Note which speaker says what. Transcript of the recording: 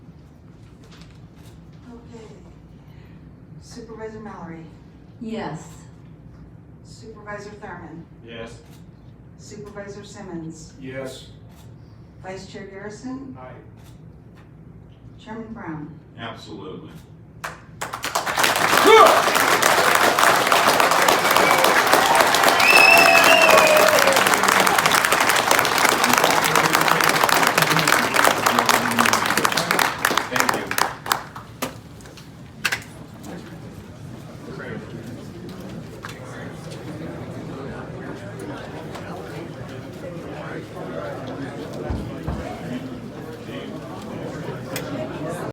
Speaker 1: Supervisor Mallory,
Speaker 2: Yes.
Speaker 1: Supervisor Thurman,
Speaker 3: Yes.
Speaker 1: Supervisor Simmons,
Speaker 3: Yes.
Speaker 1: Vice Chair Garrison,
Speaker 3: Aye.
Speaker 1: Chairman Brown.
Speaker 4: Absolutely.